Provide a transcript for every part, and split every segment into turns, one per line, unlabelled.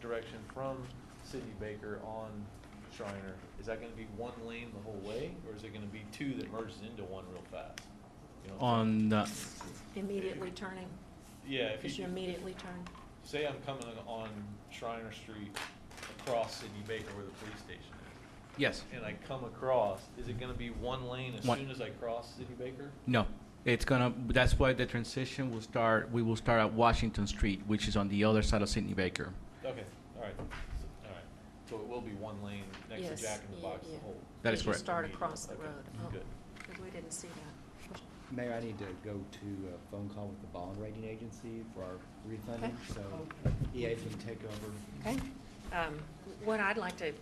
direction from City Baker on Shriner, is that gonna be one lane the whole way, or is it gonna be two that merges into one real fast? You know what I'm saying?
on the,
Immediately turning,
Yeah, if
because you
you,
immediately turn.
say I'm coming on Shriner Street across City Baker where the police station is,
yes,
and I come across, is it gonna be one lane as
One.
soon as I cross City Baker?
no. It's gonna, that's why the transition will start, we will start at Washington Street, which is on the other side of Sidney Baker.
Okay, all right, all right, so it will be one lane next to
Yes,
Jack in the
yeah,
Box the
yeah.
whole.
That is
As you
correct.
start
Okay,
across the
okay,
road. Oh,
Good.
Because we didn't see that.
Mayor, I need to go to a phone call with the bond rating agency for our refunding,
Okay.
so EA can take over.
Okay. Um, What I'd like to,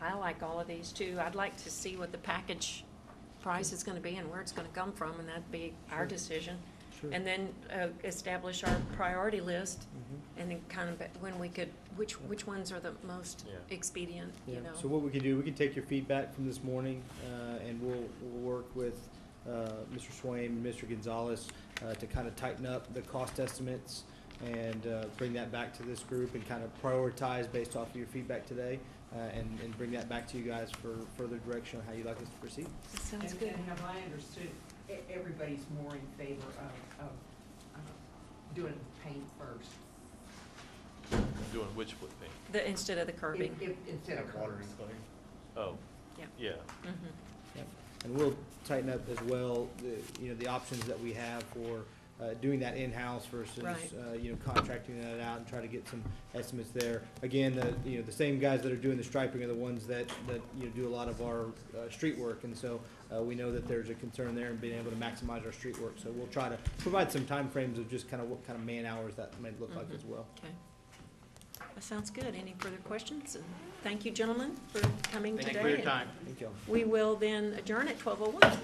I like all of these too. I'd like to see what the package price is gonna be and where it's gonna come from, and that'd be our decision. And then uh, establish our priority list,
Mm-hmm.
and then kind of when we could, which, which ones are the most
Yeah.
expedient,
Yeah,
you know?
so what we could do, we could take your feedback from this morning, uh, and we'll, we'll work with, uh, Mr. Swain, and Mr. Gonzalez, uh, to kind of tighten up the cost estimates and, uh, bring that back to this group and kind of prioritize based off of your feedback today, uh, and, and bring that back to you guys for further direction on how you'd like us to proceed.
That Sounds
And-
good.
And have I understood, e- everybody's more in favor of, of uh, doing paint first?
Doing which foot thing?
The, instead of the curbing.
If- if- Instead of curbs.
Oh.
Yeah. Mhm.
Yep. And we'll tighten up as well, the, you know, the options that we have for uh, doing that in-house versus,
Right.
uh, you know, contracting that out and try to get some estimates there. Again, the, you know, the same guys that are doing the striping are the ones that, that, you know, do a lot of our uh, street work. And so uh, we know that there's a concern there and being able to maximize our street work. So we'll try to provide some timeframes of just kind of what kind of man-hours that might look like
Mhm.
as well.
Okay. That sounds good. Any further questions? And Thank you, gentlemen, for coming today.
time.
Thank you.
We will then adjourn at twelve oh one.